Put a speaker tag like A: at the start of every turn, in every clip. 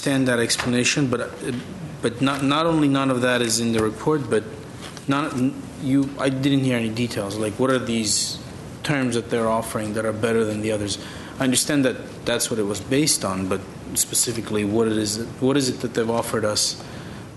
A: understand that explanation, but, uh, but not, not only none of that is in the report, but not, you, I didn't hear any details, like what are these terms that they're offering that are better than the others? I understand that that's what it was based on, but specifically, what it is, what is it that they've offered us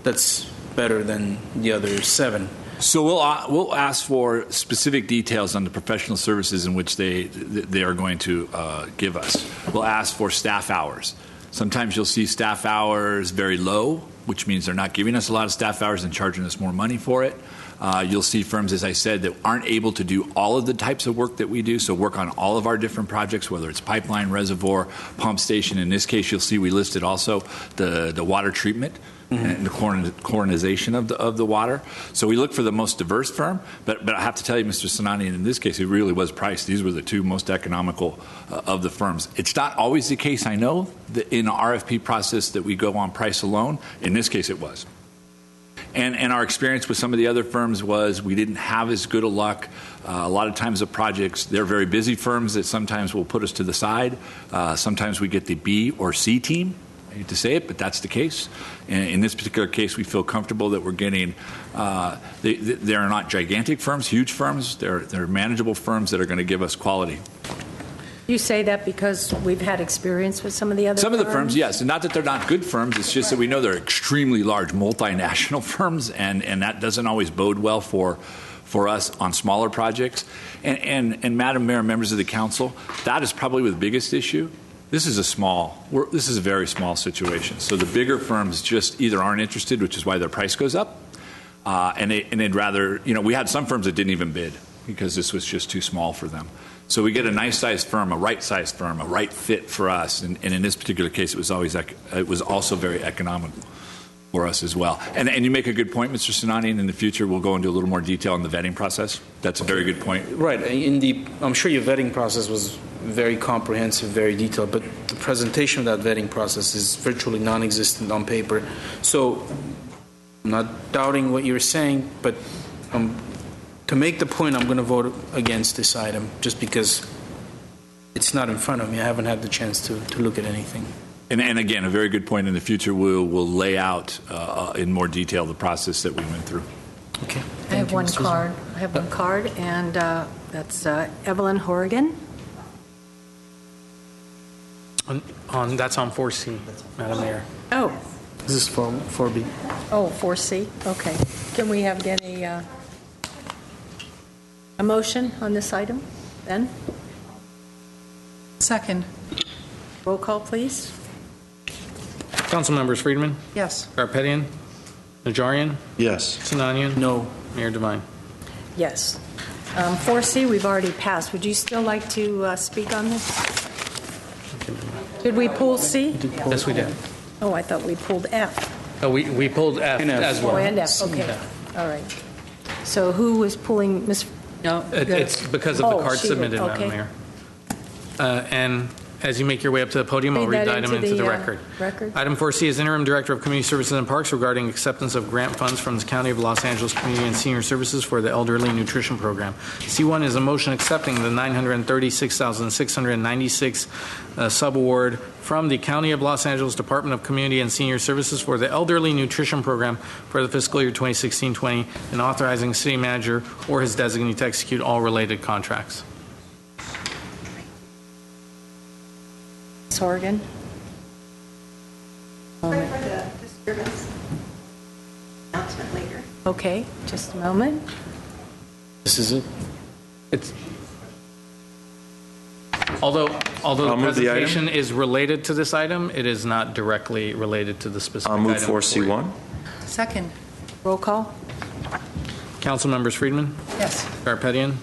A: that's better than the other seven?
B: So we'll uh, we'll ask for specific details on the professional services in which they th- they are going to uh, give us. We'll ask for staff hours. Sometimes you'll see staff hours very low, which means they're not giving us a lot of staff hours and charging us more money for it. Uh, you'll see firms, as I said, that aren't able to do all of the types of work that we do, so work on all of our different projects, whether it's pipeline, reservoir, pump station. In this case, you'll see we listed also the, the water treatment and the coron- coronization of the, of the water. So we look for the most diverse firm, but, but I have to tell you, Mr. Sinani, in this case, it really was price. These were the two most economical uh, of the firms. It's not always the case, I know, that in the RFP process that we go on price alone. In this case, it was. And, and our experience with some of the other firms was we didn't have as good a luck. Uh, a lot of times, the projects, they're very busy firms that sometimes will put us to the side. Uh, sometimes we get the B or C team. I hate to say it, but that's the case. In, in this particular case, we feel comfortable that we're getting, uh, they, they are not gigantic firms, huge firms. They're, they're manageable firms that are going to give us quality.
C: You say that because we've had experience with some of the other
B: Some of the firms, yes, and not that they're not good firms. It's just that we know they're extremely large multinational firms, and, and that doesn't always bode well for for us on smaller projects. And, and and Madam Mayor, members of the council, that is probably the biggest issue. This is a small. We're, this is a very small situation. So the bigger firms just either aren't interested, which is why their price goes up, uh, and, they, and they'd rather, you know, we had some firms that didn't even bid because this was just too small for them. So we get a nice sized firm, a right sized firm, a right fit for us. And, and in this particular case, it was always ec- it was also very economical for us as well. And, and you make a good point, Mr. Sinani. And in the future, we'll go into a little more detail on the vetting process. That's a very good point.
A: Right, in the, I'm sure your vetting process was very comprehensive, very detailed, but the presentation of that vetting process is virtually non-existent on paper. So I'm not doubting what you're saying, but um, to make the point, I'm going to vote against this item, just because it's not in front of me. I haven't had the chance to, to look at anything.
B: And, and again, a very good point. In the future, we'll, we'll lay out uh, in more detail the process that we went through.
A: Okay.
C: I have one card, I have one card, and uh, that's uh, Evelyn Horgan.
D: On, on, that's on 4C, Madam Mayor.
C: Oh,
A: This is for, for B.
C: oh, 4C, okay. Can we have any, uh, a motion on this item, then?
E: Second,
C: Roll call, please.
D: Council members: Friedman,
E: yes.
D: Garpetian, Najarian,
F: Yes.
D: Sinanian,
A: No,
D: Mayor Devine.
C: Yes. Um, 4C, we've already passed. Would you still like to uh, speak on this? Did we pull C?
D: Yes, we did.
C: Oh, I thought we pulled F.
D: Oh, we, we pulled F
A: And F.
D: as
C: Oh,
D: well.
C: and F, okay. All right. So who was pulling, Ms.? No.
D: It- It's because of the
C: Oh,
D: card
C: she did.
D: submitted,
C: Okay.
D: Madam Mayor. Uh, And as you make your way up to the podium, I'll
C: Read
D: read the
C: that
D: item
C: into
D: into the
C: the, uh,
D: record.
C: record.
D: Item 4C is interim director of community services and parks regarding acceptance of grant funds from the County of Los Angeles Community and Senior Services for the Elderly Nutrition Program. C1 is a motion accepting the 936,696 uh, subaward from the County of Los Angeles Department of Community and Senior Services for the Elderly Nutrition Program for the fiscal year 2016-20 and authorizing city manager or his designee to execute all related contracts.
C: Ms. Horgan?
G: Sorry for the disturbance. Announcement later.
C: Okay, just a moment.
A: this is it.
D: It's, although, although the
F: I'll move the item.
D: presentation is related to this item, it is not directly related to the specific
F: I'll
D: item.
F: move 4C1.
E: Second,
C: Roll call?
D: Council members: Friedman,
E: yes.
D: Garpetian,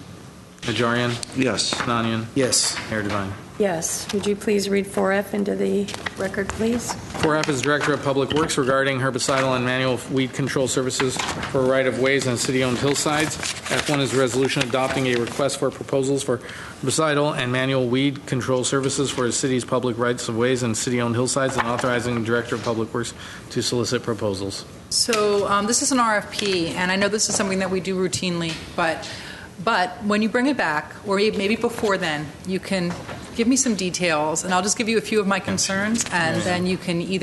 D: Najarian,
F: Yes.
D: Sinanian,
A: Yes.
D: Mayor Devine.
C: Yes. Would you please read 4F into the record, please?
D: 4F is Director of Public Works regarding herbicidal and manual weed control services for right-of-ways on city-owned hillsides. F1 is a resolution adopting a request for proposals for herbicidal and manual weed control services for the city's public rights-of-ways and city-owned hillsides and authorizing the Director of Public Works to solicit proposals.
E: So um, this is an RFP, and I know this is something that we do routinely, but, but when you bring it back, or may- maybe before then, you can give me some details, and I'll just give you a few of my concerns, and then you can either